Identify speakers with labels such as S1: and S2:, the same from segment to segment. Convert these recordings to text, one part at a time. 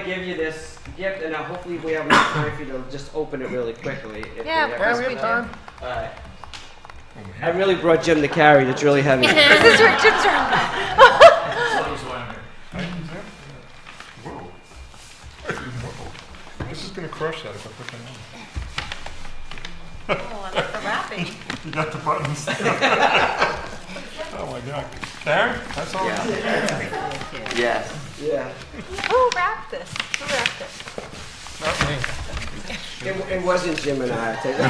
S1: give you this gift, and uh, hopefully we have enough time for you to just open it really quickly. If
S2: Yeah,
S1: we
S2: of
S1: have
S2: course
S1: enough
S2: we do.
S1: All right. I really brought Jim to carry. That's really heavy.
S2: This is your Jim's room.
S3: Whoa. Whoa. This is gonna crush that if I put
S2: Oh,
S3: that on.
S2: I like the wrapping.
S3: You got the buttons. Oh my God. There, that's all.
S1: yes. Yeah.
S2: Who wrapped this? Who wrapped this?
S3: Not me.
S1: It, it wasn't Jim and I. I tell you.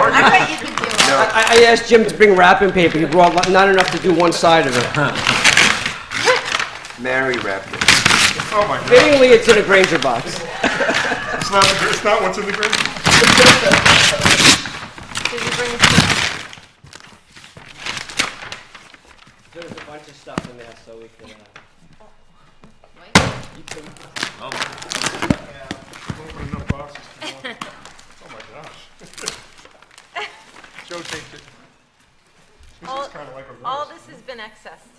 S2: Oh, I bet you could do it.
S1: I, I asked Jim to bring wrapping paper. He brought lo- not enough to do one side of it.
S4: Mary wrapped it.
S3: Oh my God.
S1: Fittingly, it's in a Granger box.
S3: It's not, the gr- it's not what's in the grid?
S2: Did you bring it?
S1: There's a bunch of stuff in there, so we can. Uh,
S3: Open enough boxes to walk. Oh my gosh. Joe taped it. This
S2: All-
S3: is kind of like a
S2: All
S3: rose.
S2: this has been excessed.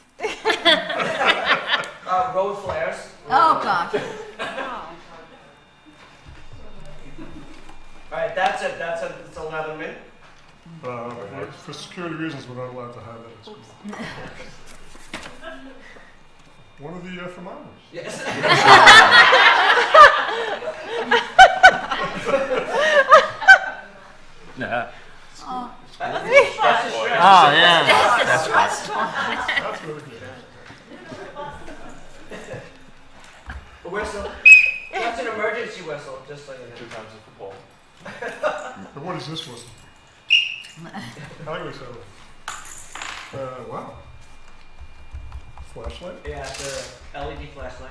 S1: Uh, road flares.
S5: Oh, gosh.
S1: All right, that's it. That's it. It's 11 minutes.
S3: Uh, for- For security reasons, we're not allowed to have that. One of the uh, thermometers.
S1: Yes.
S4: Oh, yeah.
S3: That's really good.
S1: A whistle. That's an emergency whistle, just so you know. Two times a football.
S3: And what is this one? Highway settlement. Uh, wow. Flashlight?
S1: Yeah, it's a LED flashlight.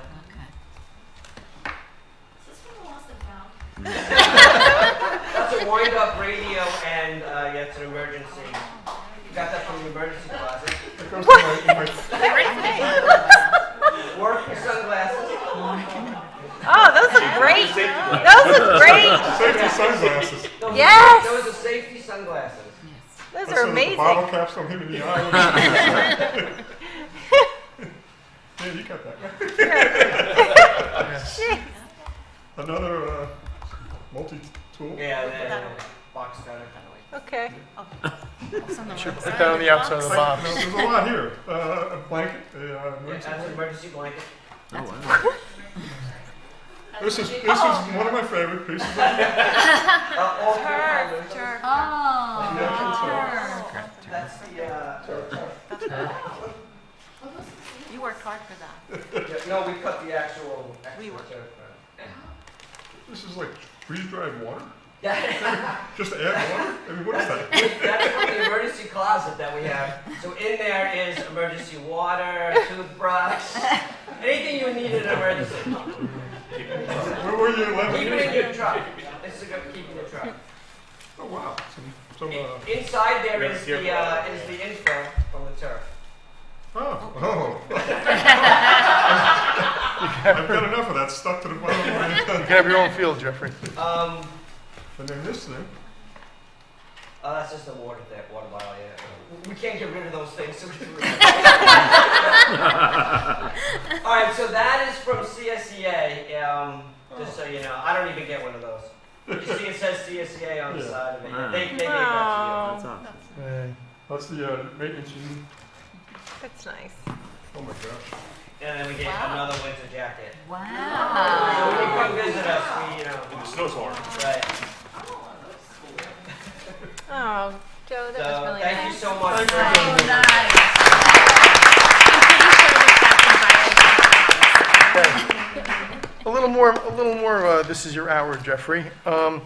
S1: That's a wind-up radio, and uh, yeah, it's an emergency. You got that from the emergency closet.
S3: It goes to my, in my,
S1: Work your sunglasses.
S2: Oh, those look great. Those look great.
S3: safety sunglasses.
S1: Those are-
S2: Yes.
S1: Those are safety sunglasses.
S2: Those
S3: I said
S2: are
S3: the
S2: amazing.
S3: Bottle caps don't hit me in the eye. Yeah, you got that.
S2: Jeez.
S3: Another, uh, multi-tool?
S1: Yeah, they're box cutter kind of like.
S2: Okay.
S6: Put that on the outside of the
S3: Like,
S6: box.
S3: no, there's a lot here. Uh, a blanket, a, uh,
S1: Yeah,
S3: emergency
S1: that's an emergency blanket.
S3: This is, this is
S2: Oh.
S3: one of my favorite pieces of
S1: Uh, all three colors.
S5: Oh.
S3: Yeah,
S1: That's the, uh,
S2: You worked hard for that.
S1: yeah, no, we cut the actual,
S2: We
S1: actual
S2: were-
S1: turf.
S3: This is like freeze-dried water?
S1: Yeah.
S3: Just add water? I mean, what is that?
S1: That's from the emergency closet that we have. So in there is emergency water, toothbrush, anything you need in an emergency.
S3: Where were you eleven
S1: Keep
S3: years
S1: it in
S3: ago?
S1: your truck. This is going to keep in your truck.
S3: Oh, wow. Some, some, uh,
S1: In- Inside there
S6: Very
S1: is the, uh, is the info from the turf.
S3: oh, oh. I've got enough of that stuck to the bottom of my
S6: You
S3: head.
S6: can have your own field, Jeffrey.
S1: Um,
S3: And then this thing,
S1: oh, that's just the water, that water bottle, yeah. We can't get rid of those things, so we All right, so that is from CSEA, um, just so you know. I don't even get one of those. You see it says CSEA on the
S3: Yeah.
S1: side of it. They, they gave that to you.
S2: Oh,
S6: Uh,
S3: that's the, uh, maintenance unit.
S2: That's nice.
S3: Oh, my gosh.
S1: And then we get
S2: Wow.
S1: another winter jacket.
S2: Oh,
S5: Wow.
S1: So when you come visit us, we, you know, right.
S2: Oh, Joe, that was
S1: So
S2: really
S1: thank you
S2: nice.
S1: so much for
S5: So
S1: being here.
S5: nice.
S6: A little more, a little more. Uh, this is your hour, Jeffrey. Um,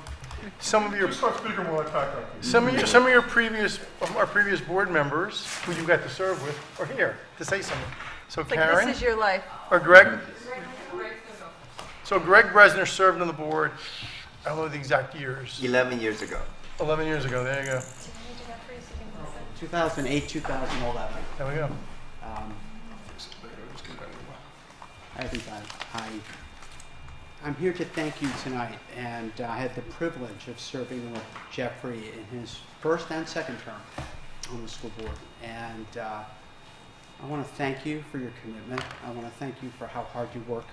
S6: some of your,
S3: Just start speaking while I pack up.
S6: some of your, some of your previous, of our previous board members who you got to serve with are here to say something. So
S2: It's Like,
S6: Karen
S2: this is your life.
S6: or Greg. So Greg Bresner served on the board. I don't know the exact years.
S4: 11 years ago.
S6: 11 years ago. There you go.
S7: 2008, 2011.
S6: There we go.
S7: Um, I think I, I, I'm here to thank you tonight, and uh, I had the privilege of serving with Jeffrey in his first and second term on the school board. And uh, I want to thank you for your commitment. I want to thank you for how hard you work